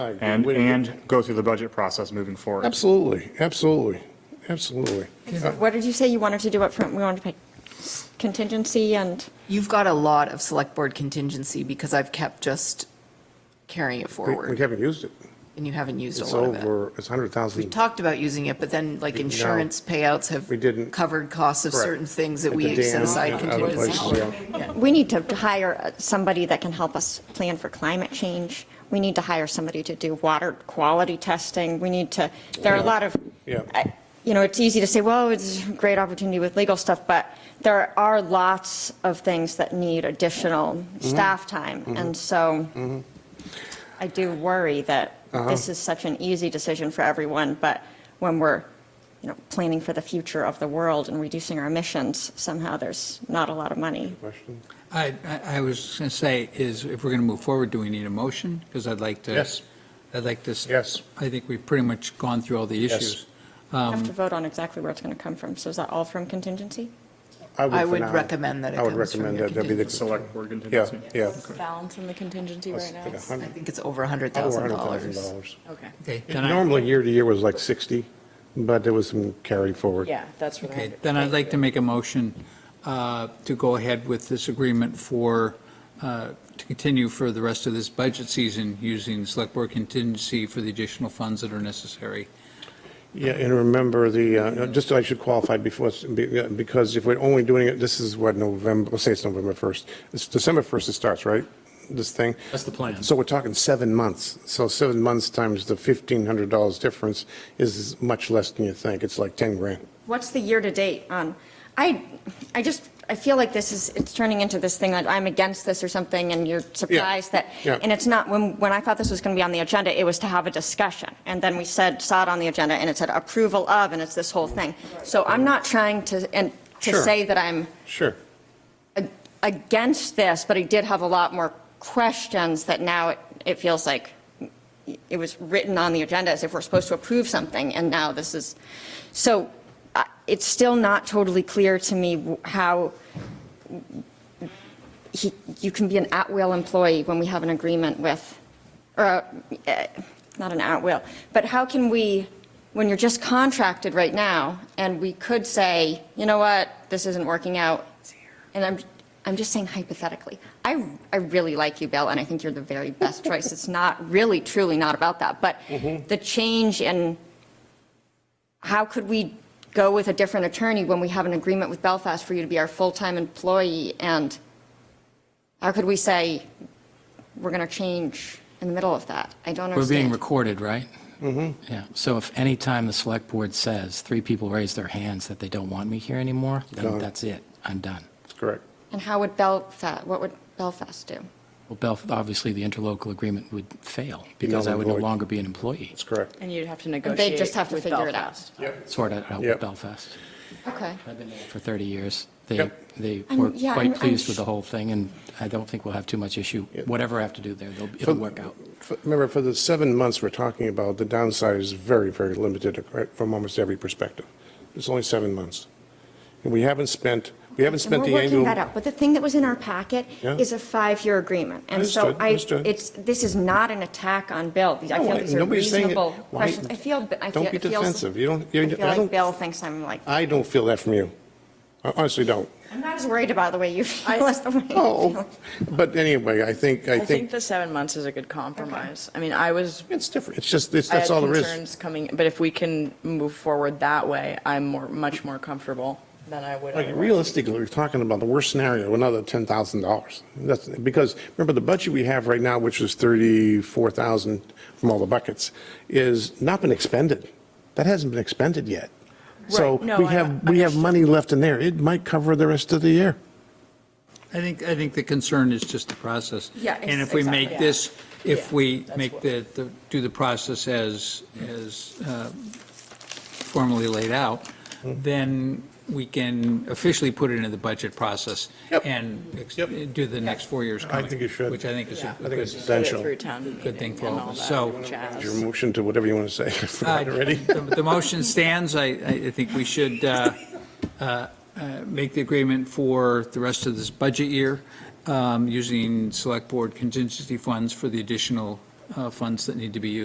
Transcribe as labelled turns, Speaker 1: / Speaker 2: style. Speaker 1: I agree.
Speaker 2: and,
Speaker 1: Way to go.
Speaker 2: and go through the budget process moving forward.
Speaker 1: Absolutely, absolutely, absolutely.
Speaker 3: What did you say you wanted to do up front? We wanted to pick contingency and,
Speaker 4: You've got a lot of select board contingency because I've kept just carrying it
Speaker 1: We we
Speaker 4: forward
Speaker 1: haven't used it.
Speaker 4: and you haven't used a
Speaker 1: It's
Speaker 4: lot of it.
Speaker 1: over, it's
Speaker 4: We
Speaker 1: 100,000.
Speaker 4: talked about using it, but then like insurance payouts have
Speaker 1: We didn't.
Speaker 4: covered costs of
Speaker 1: Correct.
Speaker 4: certain things that
Speaker 1: At
Speaker 4: we
Speaker 1: the
Speaker 4: set
Speaker 1: dam and
Speaker 4: aside
Speaker 1: other
Speaker 4: contingency
Speaker 1: places,
Speaker 4: for.
Speaker 1: yeah.
Speaker 3: we need to hire uh, somebody that can help us plan for climate change. We need to hire somebody to do water quality testing. We need to, there are a lot of,
Speaker 1: Yeah.
Speaker 3: I- you know, it's easy to say, well, it's a great opportunity with legal stuff, but there are lots of things that need additional
Speaker 1: Mm-hmm.
Speaker 3: staff time. And so I do worry that
Speaker 1: Uh-huh.
Speaker 3: this is such an easy decision for everyone, but when we're, you know, planning for the future of the world and reducing our emissions, somehow there's not a lot of money.
Speaker 1: Question?
Speaker 5: I, I- I was going to say, is if we're going to move forward, do we need a motion? Because I'd like to.
Speaker 1: Yes.
Speaker 5: I'd like to. s-
Speaker 1: Yes.
Speaker 5: I think we've pretty much gone through all the
Speaker 1: Yes.
Speaker 5: issues.
Speaker 1: Um,
Speaker 3: We have to vote on exactly where it's going to come from. So is that all from contingency?
Speaker 4: I
Speaker 1: for
Speaker 4: would
Speaker 1: now.
Speaker 4: recommend that it
Speaker 1: I would
Speaker 4: comes from
Speaker 1: recommend
Speaker 4: your
Speaker 1: that, that'd be the.
Speaker 2: Select board
Speaker 1: Yeah,
Speaker 2: contingency.
Speaker 1: yeah.
Speaker 6: balance in the contingency
Speaker 1: Let's
Speaker 6: right
Speaker 1: take a
Speaker 6: now?
Speaker 4: I
Speaker 1: hundred-
Speaker 4: think it's over hundred
Speaker 1: Over
Speaker 4: thousand dollars.
Speaker 1: $100,000.
Speaker 6: Okay,
Speaker 5: Okay, then I,
Speaker 1: Normally, year to year was like 60, but there was some carry forward.
Speaker 6: yeah, that's what I.
Speaker 5: okay, then I'd like to make a motion uh, to go ahead with this agreement for, uh, to continue for the rest of this budget season using select board contingency for the additional funds that are necessary.
Speaker 1: Yeah, and remember the, uh, just I should qualify before, it's- be- uh, because if we're only doing it, this is what, November, let's say it's November 1st. It's December 1st it starts, right? This thing?
Speaker 7: That's the plan.
Speaker 1: So we're talking seven months. So seven months times the $1,500 difference is much less than you think. It's like 10 grand.
Speaker 3: What's the year-to-date on? I, I just, I feel like this is, it's turning into this thing that I'm against this or something, and you're surprised that,
Speaker 1: yeah.
Speaker 3: and it's not, when, when I thought this was going to be on the agenda, it was to have a discussion. And then we said, saw it on the agenda, and it said approval of, and it's this whole thing. So I'm not trying to, and to
Speaker 1: Sure.
Speaker 3: say that I'm
Speaker 1: Sure.
Speaker 3: against this, but I did have a lot more questions that now it, it feels like it was written on the agenda as if we're supposed to approve something, and now this is, so uh, it's still not totally clear to me w- how he, you can be an at-will employee when we have an agreement with, or, uh, eh, not an at-will, but how can we, when you're just contracted right now, and we could say, you know what, this isn't working out, and I'm, I'm just saying hypothetically, I, I really like you, Bill, and I think you're the very best choice. It's not, really, truly not about that, but the change in, how could we go with a different attorney when we have an agreement with Belfast for you to be our full-time employee? And how could we say, we're going to change in the middle of that? I don't
Speaker 7: We're being
Speaker 3: understand.
Speaker 7: recorded, right? Mm-hmm. Yeah, so if any time the select board says, three people raise their hands that they don't want me here anymore, then
Speaker 1: Done.
Speaker 7: that's it, I'm done.
Speaker 1: That's correct.
Speaker 3: And how would Belfast, what would Belfast do?
Speaker 7: Well, Belf, obviously, the interlocal agreement would fail, because
Speaker 1: null
Speaker 7: I
Speaker 1: and
Speaker 7: would no
Speaker 1: void.
Speaker 7: longer be an employee,
Speaker 1: That's correct.
Speaker 6: And you'd have to
Speaker 3: just
Speaker 6: negotiate.
Speaker 3: have to
Speaker 6: with
Speaker 3: figure it out.
Speaker 6: Belfast.
Speaker 7: sort of, out
Speaker 1: Yep.
Speaker 7: with Belfast.
Speaker 3: Okay.
Speaker 7: I've been there for 30 years. They,
Speaker 1: Yep.
Speaker 7: they
Speaker 3: I'm-
Speaker 7: were
Speaker 3: yeah, I'm-
Speaker 7: quite
Speaker 3: I'm
Speaker 7: pleased with
Speaker 3: sh-
Speaker 7: the whole thing, and I don't think we'll have too much issue. Whatever I have to do there, they'll- it'll work out.
Speaker 1: For- Remember, for the seven months we're talking about, the downside is very, very limited right, from almost every perspective. It's only seven months. And we haven't spent, we haven't
Speaker 3: And
Speaker 1: spent
Speaker 3: we're
Speaker 1: the
Speaker 3: working
Speaker 1: annual.
Speaker 3: that out, but the thing that was in our packet
Speaker 1: Yeah.
Speaker 3: is a five-year agreement. And so
Speaker 1: Understood,
Speaker 3: I,
Speaker 1: understood.
Speaker 3: it's, this is not an attack on Bill. I
Speaker 1: No,
Speaker 3: feel
Speaker 1: I-
Speaker 3: these are
Speaker 1: nobody's saying it.
Speaker 3: reasonable
Speaker 1: Why-
Speaker 3: questions. I feel, I feel.
Speaker 1: Don't be
Speaker 3: it feels-
Speaker 1: defensive. You don't- you-
Speaker 3: I feel
Speaker 1: I
Speaker 3: like
Speaker 1: don't-
Speaker 3: Bill thinks I'm like,
Speaker 1: I don't feel that from you. I honestly don't.
Speaker 3: I'm not as worried about the way you feel as the way. I
Speaker 1: Oh,
Speaker 3: feel.
Speaker 1: but anyway, I think, I
Speaker 6: I think
Speaker 1: think,
Speaker 6: the seven months is a good compromise. I mean, I was,
Speaker 1: it's different. It's just, it's-
Speaker 6: I had
Speaker 1: that's all there is.
Speaker 6: concerns coming, but if we can move forward that way, I'm more, much more comfortable than I would.
Speaker 1: Like
Speaker 6: otherwise.
Speaker 1: realistically, we're talking about the worst scenario, another ten thousand dollars. That's because remember the budget we have right now, which is thirty-four thousand from all the buckets, is not been expended. That hasn't been expended yet. So
Speaker 6: Right. No,
Speaker 1: we
Speaker 6: I
Speaker 1: have, we have
Speaker 6: understand.
Speaker 1: money left in there. It might cover the rest of the year.
Speaker 5: I think, I think the concern is just the process.
Speaker 3: Yeah, ex-
Speaker 5: And if we make
Speaker 6: exactly.
Speaker 5: this, if
Speaker 6: Yeah,
Speaker 5: we
Speaker 6: that's
Speaker 5: make
Speaker 6: what-
Speaker 5: the, the- do the process as, as uh, formally laid out,
Speaker 1: Hmm.
Speaker 5: then we can officially put it into the budget process
Speaker 1: Yep.
Speaker 5: and ex-
Speaker 1: Yep.
Speaker 5: do the next four years coming.
Speaker 1: think you should.
Speaker 5: Which I think is a
Speaker 1: I think it's
Speaker 5: good.
Speaker 6: Get it
Speaker 1: essential.
Speaker 6: Through town
Speaker 5: Good thing
Speaker 6: meeting
Speaker 5: for
Speaker 6: and
Speaker 5: all
Speaker 6: all
Speaker 5: of us. So-
Speaker 6: that jazz.
Speaker 1: Your motion to whatever you want to say. I forgot already.
Speaker 5: The the motion stands. I, I think we should uh, uh, uh, make the agreement for the rest of this budget year um, using select board contingency funds for the additional uh, funds that need to be used.